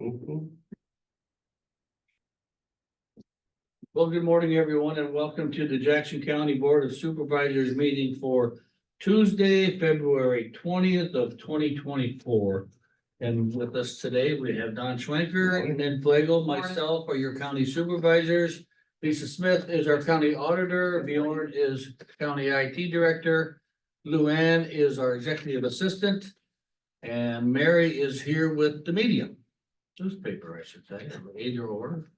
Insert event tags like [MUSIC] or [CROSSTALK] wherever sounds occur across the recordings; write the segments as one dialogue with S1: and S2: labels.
S1: Mhm.
S2: Well, good morning, everyone, and welcome to the Jackson County Board of Supervisors meeting for Tuesday, February twentieth of twenty twenty-four. And with us today, we have Don Schwenker and then Flagel, myself are your county supervisors. Lisa Smith is our county auditor, Bjorn is county IT director, Luann is our executive assistant, and Mary is here with the medium, newspaper, I should say, either or.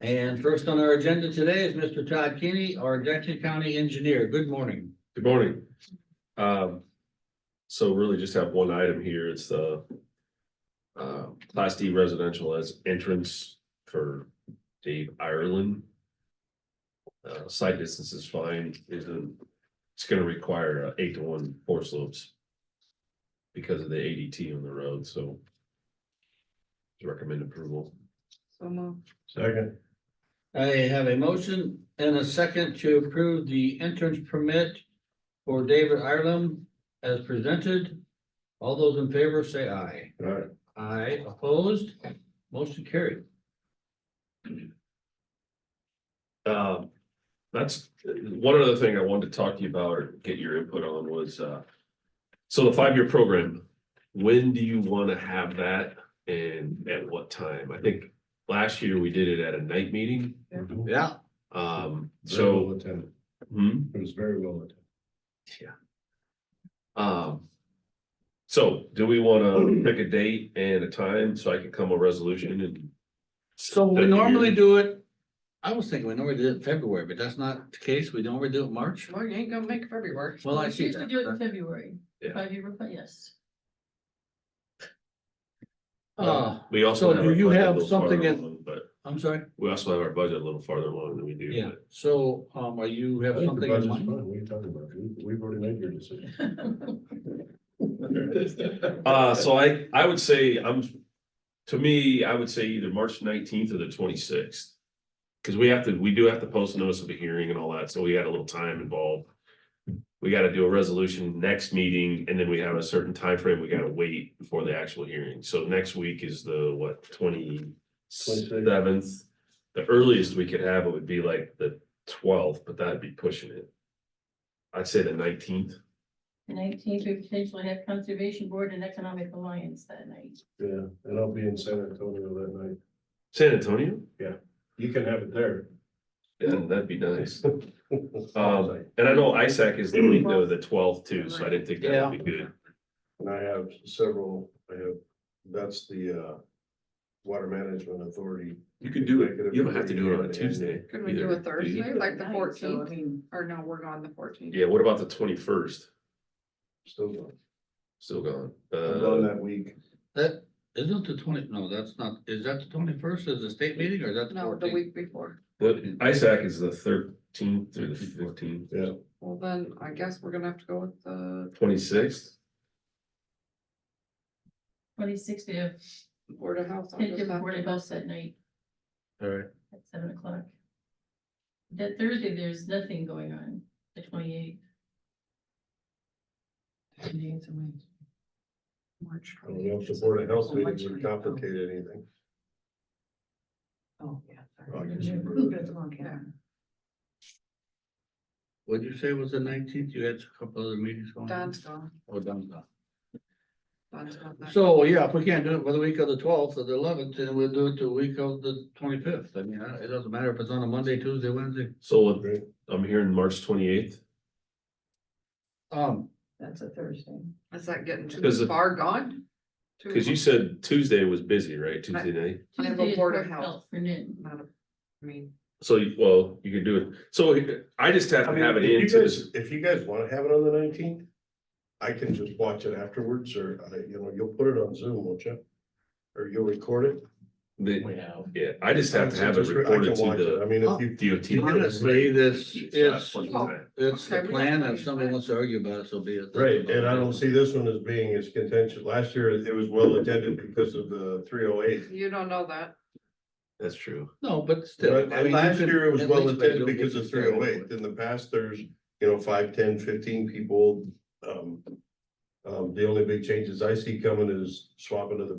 S2: And first on our agenda today is Mr. Todd Keeney, our Jackson County Engineer. Good morning.
S1: Good morning. Um, so really just have one item here. It's the uh, Class D residential as entrance for Dave Ireland. Uh, site distance is fine, isn't, it's gonna require a eight to one four slopes because of the ADT on the road, so recommend approval.
S3: So moved.
S1: Second.
S2: I have a motion and a second to approve the entrance permit for David Ireland as presented. All those in favor say aye.
S1: All right.
S2: Aye opposed, motion carried.
S1: Um, that's, one other thing I wanted to talk to you about or get your input on was, uh. So the five-year program, when do you wanna have that and at what time? I think last year we did it at a night meeting.
S2: Yeah.
S1: Um, so,
S4: attended,
S1: hmm,
S4: it was very well attended.
S1: um. So do we wanna
S2: Hmm.
S1: pick a date and a time so I can come a resolution and?
S2: So we normally do it, I was thinking we normally did it in February, but that's not the case. We normally do it in March.
S3: Well, you ain't gonna make February work.
S2: Well, I see
S5: Usually do it in
S2: that.
S5: February,
S1: Yeah.
S5: five year, but yes.
S2: Uh,
S1: We also.
S2: So
S1: have
S2: do
S1: our
S2: you
S1: budget a
S2: have
S1: little farther
S2: something in-
S1: along, But
S2: I'm sorry.
S1: we also have our budget a little farther along than we do.
S2: Yeah, so, um, are you
S4: I
S2: have
S4: think the
S2: something in
S4: budget's
S2: mind?
S4: fine, what are you talking about? We- We've already made your decision. [LAUGHS]
S1: Uh, so I, I would say I'm, to me, I would say either March nineteenth or the twenty-sixth. Cause we have to, we do have to post notice of a hearing and all that, so we got a little time involved. We gotta do a resolution next meeting and then we have a certain time frame. we gotta wait before the actual hearing. So next week is the, what, twenty-seventh? The earliest we could have it would be like the twelfth, but that'd be pushing it. I'd say the nineteenth.
S5: The nineteenth, we potentially have Conservation Board and Economic Alliance that night.
S4: Yeah, and I'll be in San Antonio that night.
S1: San Antonio?
S4: You can have it there.
S1: Yeah, that'd be nice. Um, and I know ISAC is the week though, the twelfth too, so I didn't think that would be good.
S4: [LAUGHS] And I have several, I have, that's the, uh, Water Management Authority.
S1: You could do it, you don't have to do it on a Tuesday.
S3: Could we do
S1: either,
S3: a Thursday,
S1: you?
S3: like the
S5: Night, so, I
S3: fourteenth,
S5: mean,
S3: or no, we're gone the fourteenth?
S1: Yeah, what about the twenty-first?
S4: Still going,
S1: Still gone.
S4: I'm going
S1: Uh,
S4: that week.
S2: That, isn't the twenty, no, that's not, is that the twenty-first is the state meeting or is that the
S3: No, the
S2: fourteenth?
S3: week before.
S1: but ISAC is the thirteenth through the fifteenth,
S4: Yeah,
S3: Well, then I guess we're gonna have to go with the
S1: twenty-sixth.
S5: Twenty-sixth, we have
S3: Board of Health. on
S5: Pitt
S3: this
S5: and Board of
S3: afternoon.
S5: Health that night
S2: Alright,
S5: at seven o'clock. That Thursday, there's nothing going on, the twenty-eighth.
S3: March
S4: I don't know if the Board of Health meeting would complicate anything.
S6: Oh, yeah. sorry.
S4: [LAUGHS] I guess
S5: Mhm.
S4: we're-
S6: Moved it along, yeah.
S2: what'd you say was the nineteenth? You had a couple other meetings going on?
S3: Don's gone.
S2: Oh, done, done.
S3: Don's gone that-
S2: So, yeah, if we can't do it for the week of the twelfth or the eleventh, then we'll do it the week of the twenty-fifth. I mean, I- it doesn't matter if it's on a Monday, Tuesday, Wednesday.
S1: So I'm hearing March twenty-eighth.
S2: Um,
S6: That's a Thursday.
S3: Is that getting
S1: Because
S3: too
S1: it-
S3: far gone? Too
S1: Cause you
S3: much?
S1: said Tuesday was busy, right? Tuesday night?
S3: I have a
S5: Tuesday is
S3: Board of Health.
S5: For noon.
S3: Not a- I mean,
S1: So, you- well, you could do it. So I just have to have it
S4: If you
S1: in to
S4: guys- If you guys wanna have it on the nineteenth, I can just watch it afterwards, or, I- you know, you'll put it on Zoom, won't you? Or you'll record it?
S1: the, yeah, I just have to
S4: So
S1: have it
S4: just re- I can
S1: recorded
S4: watch it. I
S1: to
S4: mean,
S2: Oh.
S4: if you,
S1: the DOT.
S2: honestly, this, it's,
S1: Right,
S2: it's the
S3: Okay, we got
S2: plan.
S3: plenty
S2: If
S3: of
S2: somebody
S3: time.
S2: wants to argue about it, so be it.
S4: right, and I don't see this one as being as contentious, last year it was well attended because of the three oh eight.
S3: you don't know that.
S1: that's true.
S2: No, but still. I mean,
S4: And
S2: you
S4: last
S2: could-
S4: year it was
S2: at
S4: well
S2: least they
S4: attended
S2: don't get
S4: because of
S2: you
S4: three
S2: started
S4: oh
S2: with
S4: eight, in the past, there's, you know, five, ten, fifteen people, um. Um, the only big changes I see coming is swapping to the